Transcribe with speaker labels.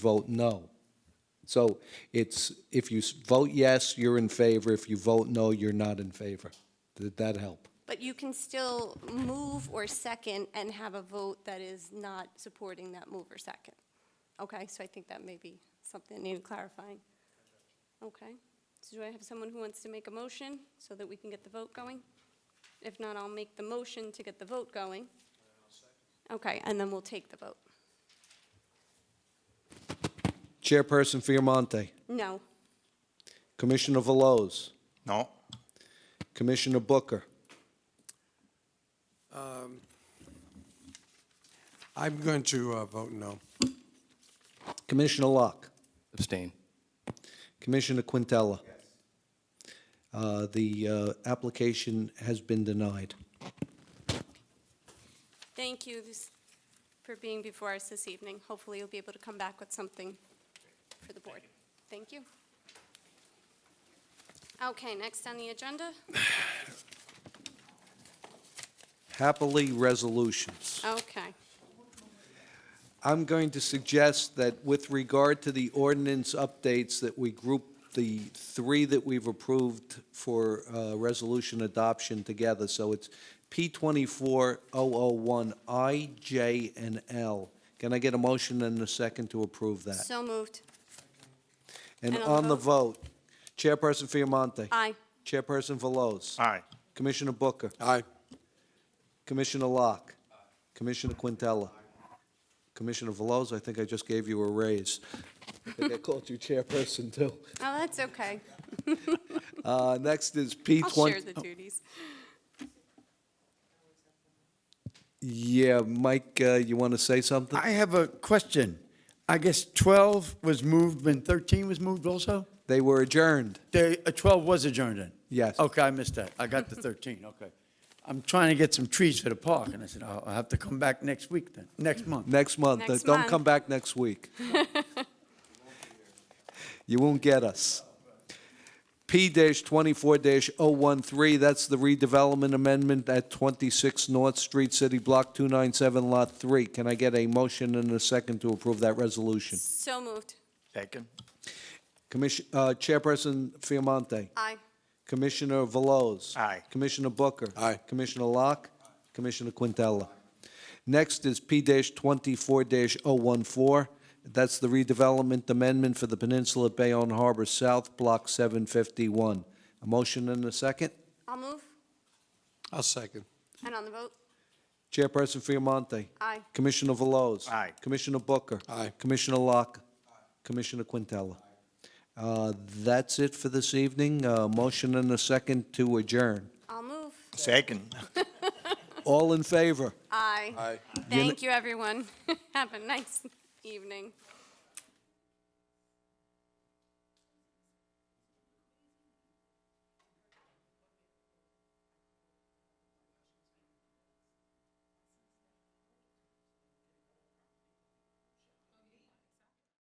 Speaker 1: vote no. So it's, if you s- vote yes, you're in favor. If you vote no, you're not in favor. Did that help?
Speaker 2: But you can still move or second and have a vote that is not supporting that move or second. Okay, so I think that may be something I need clarifying. Okay, so do I have someone who wants to make a motion so that we can get the vote going? If not, I'll make the motion to get the vote going. Okay, and then we'll take the vote.
Speaker 1: Chairperson Fiamonte,
Speaker 2: No,
Speaker 1: Commissioner Veloz,
Speaker 3: No.
Speaker 1: Commissioner Booker,
Speaker 4: I'm going to uh, vote no.
Speaker 1: Commissioner Locke,
Speaker 5: Abstain.
Speaker 1: Commissioner Quintella. Uh, The uh, application has been denied.
Speaker 2: thank you this- for being before us this evening. Hopefully, you'll be able to come back with something for the board. Thank you. Okay, next on the agenda?
Speaker 1: Happily, resolutions.
Speaker 2: Okay,
Speaker 1: I'm going to suggest that with regard to the ordinance updates, that we group the three that we've approved for uh, resolution adoption together. So it's P24001, I, J, and L. Can I get a motion and a second to approve that?
Speaker 2: so moved.
Speaker 1: And
Speaker 2: and
Speaker 1: on
Speaker 2: on the
Speaker 1: the vote, Chairperson Fiamonte.
Speaker 2: Aye.
Speaker 1: Chairperson Veloz.
Speaker 3: Aye.
Speaker 1: Commissioner Booker.
Speaker 4: Aye.
Speaker 1: Commissioner Locke. Commissioner Quintella. Commissioner Veloz, I think I just gave you a raise. I think I called you chairperson, too.
Speaker 2: Oh, that's okay.
Speaker 1: Uh, Next is P
Speaker 2: I'll share
Speaker 1: 20.
Speaker 2: the duties.
Speaker 1: Yeah, Mike, uh, you want to say something?
Speaker 6: I have a question. I guess 12 was moved when 13 was moved also?
Speaker 1: They were adjourned.
Speaker 6: The, uh, 12 was adjourned then?
Speaker 1: Yes.
Speaker 6: Okay, I missed that. I got the 13, okay. I'm trying to get some trees for the park, and I said, "Oh, I'll I'll have to come back next week then, next month.
Speaker 1: Next month.
Speaker 2: Next
Speaker 1: Don't
Speaker 2: month.
Speaker 1: come back next week. You won't get us. P-24-013, that's the redevelopment amendment at 26 North Street, City Block 297, Lot 3. Can I get a motion and a second to approve that resolution?
Speaker 2: So moved.
Speaker 3: Second.
Speaker 1: Commission, uh, Chairperson Fiamonte.
Speaker 2: Aye.
Speaker 1: Commissioner Veloz.
Speaker 3: Aye.
Speaker 1: Commissioner Booker.
Speaker 4: Aye.
Speaker 1: Commissioner Locke. Commissioner Quintella. Next is P-24-014. That's the redevelopment amendment for the Peninsula Bayonne Harbor South, Block 751. A motion and a second?
Speaker 2: I'll move.
Speaker 4: I'll second.
Speaker 2: And on the vote?
Speaker 1: Chairperson Fiamonte.
Speaker 2: Aye.
Speaker 1: Commissioner Veloz.
Speaker 3: Aye.
Speaker 1: Commissioner Booker.
Speaker 4: Aye.
Speaker 1: Commissioner Locke. Commissioner Quintella. Uh, That's it for this evening. Uh, Motion and a second to adjourn.
Speaker 2: I'll move.
Speaker 3: Second.
Speaker 1: All in favor?
Speaker 2: Aye.
Speaker 4: Aye.
Speaker 2: Thank you, everyone. Have a nice evening.